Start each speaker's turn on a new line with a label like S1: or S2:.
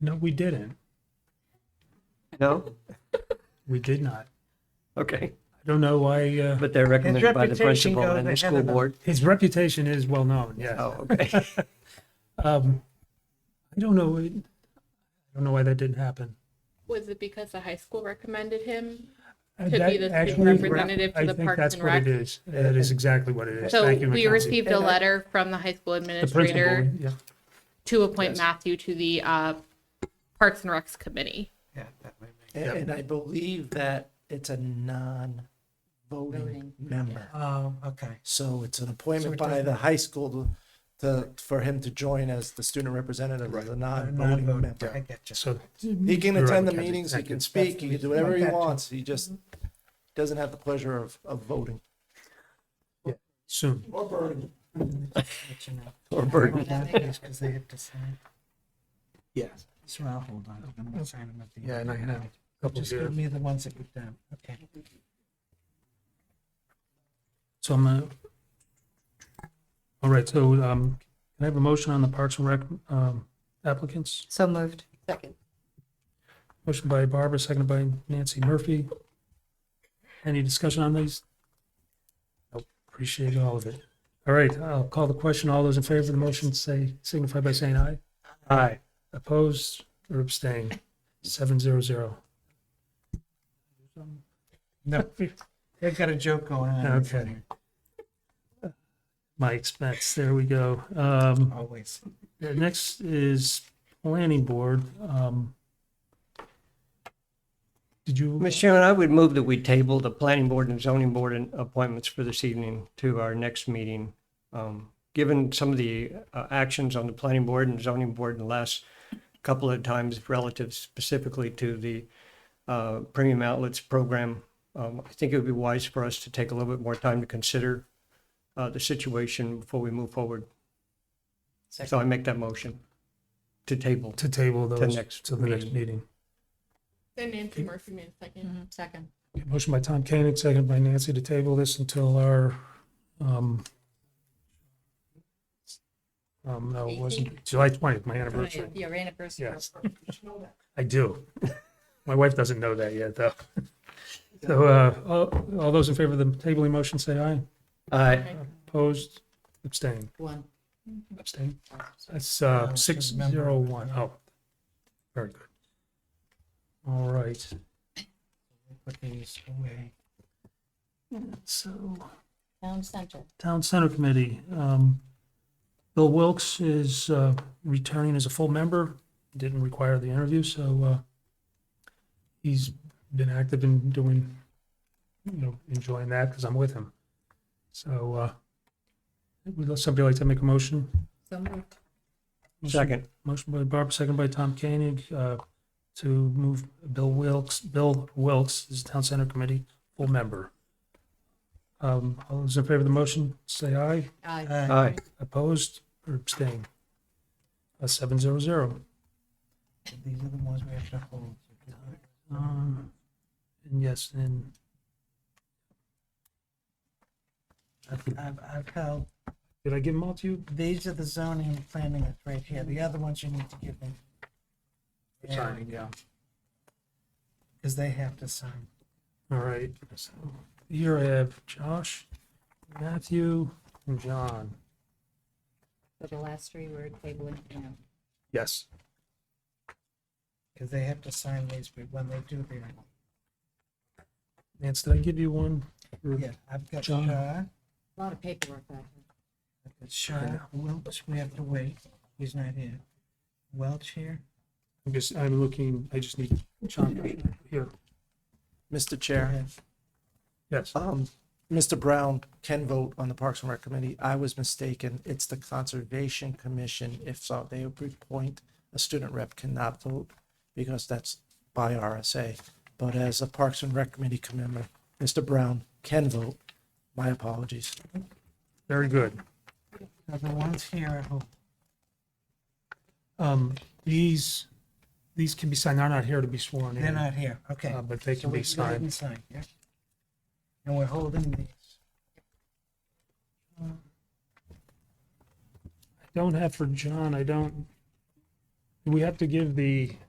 S1: No, we didn't.
S2: No?
S1: We did not. I
S2: Okay.
S1: don't know why, uh,
S2: But they're recommended by the
S3: reputation
S2: principal
S3: goes
S2: and the
S3: ahead
S2: school
S3: of them.
S2: board.
S1: his reputation is well known, yes.
S2: Oh, okay.
S1: Um, I don't know, I don't know why that didn't happen.
S4: Was it because the high school recommended him?
S1: Uh,
S4: To be
S1: that
S4: the student
S1: actually-
S4: representative to
S1: I
S4: the
S1: think
S4: Parks
S1: that's
S4: and
S1: what
S4: Rec?
S1: It is, that is exactly what it is.
S4: So
S1: Thank you,
S4: we
S1: Mackenzie.
S4: received a
S3: And I-
S4: letter from the high school
S1: The principal,
S4: administrator
S1: yeah.
S4: to appoint Matthew to the uh, Parks and Recs Committee.
S3: Yeah, that might make-
S1: Yep.
S3: And I believe that it's a non-voting member.
S5: Oh, okay.
S3: So it's an
S5: So
S3: appointment
S5: it
S3: by
S5: doesn't-
S3: the high school to- to, for him to join as the student representative of the non-voting
S5: Non-voting, I
S3: member.
S5: get you.
S1: So
S3: He
S1: You're
S3: can
S1: right,
S3: attend the
S1: Mackenzie.
S3: meetings, he
S1: Thank you.
S3: can speak, he can do whatever he
S5: Gotcha.
S3: wants, he just doesn't have the pleasure of, of voting.
S1: soon.
S3: Or burning.
S5: Let you know.
S2: Or burden.
S5: Because they have to sign.
S1: Yes.
S5: So I'll hold on. I'm gonna sign them at the end.
S1: Yeah, and I have a couple
S5: Just
S1: here.
S5: give me the ones that you've done. Okay.
S1: So I'm gonna. All right, so, um, can I have a motion on the Parks and Rec, um, applicants?
S6: So moved.
S1: Motion by Barbara, seconded by Nancy Murphy. Any discussion on these? Nope. Appreciate all of it. All right, I'll call the question. All those in favor of the motion say, signify by saying aye. Aye. Opposed or abstained? Seven zero zero.
S5: No, they've got a joke going on.
S1: Okay. My expense, there we go. Um,
S5: Always.
S1: the next is planning board. Um, Did you,
S2: Mr. Chairman, I would move that we table the planning board and zoning board and appointments for this evening to our next meeting. Um, Given some of the uh, actions on the planning board and zoning board in the last couple of times relative specifically to the uh, premium outlets program, um, I think it would be wise for us to take a little bit more time to consider uh, the situation before we move forward. So I make that motion to table.
S1: to table those
S2: next
S1: to the next
S2: meeting.
S1: meeting?
S4: Then Nancy Murphy made a second.
S6: Second.
S1: Motion by Tom Koenig, seconded by Nancy to table this until our, um, um, no, it wasn't, July twentieth, my anniversary.
S6: Your anniversary.
S1: Yes. I do. My wife doesn't know that yet, though. So, uh, all, all those in favor of the tabling motion, say aye.
S2: Aye.
S1: Opposed, abstain,
S6: One.
S1: abstain. That's, uh, six zero one. Oh, very good. All right,
S5: Put these away.
S1: so.
S6: Town center.
S1: Town Center Committee. Um, Bill Wilkes is uh, returning as a full member, didn't require the interview, so uh, he's been active in doing, you know, enjoying that because I'm with him. So uh, would somebody like to make a motion?
S6: So moved.
S2: Second.
S1: Motion by Barb, second by Tom Koenig, uh, to move Bill Wilkes, Bill Wilkes is Town Center Committee full member. Um, All those in favor of the motion, say aye.
S6: Aye.
S5: Uh,
S2: Aye.
S1: Opposed or abstained? A seven zero zero.
S5: These are the ones we have to hold.
S1: Um, and yes, and
S5: I've, I've held
S1: did I give them all to you?
S5: These are the zoning and planning that's right here. The other ones you need to give me.
S1: Signing, yeah.
S5: Because they have to sign.
S1: All right, so here I have Josh, Matthew, and John.
S6: So the last three were tabling for now.
S1: Yes.
S5: Because they have to sign these but when they do their,
S1: Nance, did I give you one? Or-
S5: yeah, I've got Shaw.
S1: John.
S5: I've
S6: A lot of paperwork back there.
S5: got Shaw, Welch, we have to wait. He's not here. Welch here.
S1: I'm just, I'm looking, I just need John here.
S3: Mr. Chair,
S1: Yes.
S3: um, Mr. Brown can vote on the Parks and Rec Committee. I was mistaken. It's the Conservation Commission. If so, they would appoint a student rep cannot vote because that's by RSA. But as a Parks and Rec Committee member, Mr. Brown can vote. My apologies.
S1: Very good.
S5: Now the ones here, I hope.
S1: Um, these, these can be signed. They're not here to be sworn in.
S5: They're not here. Okay.
S1: Uh, but they
S5: So
S1: can
S5: we
S1: be
S5: go ahead
S1: signed.
S5: and sign, yeah. And we're holding these.
S1: don't have for John, I don't, we have to give the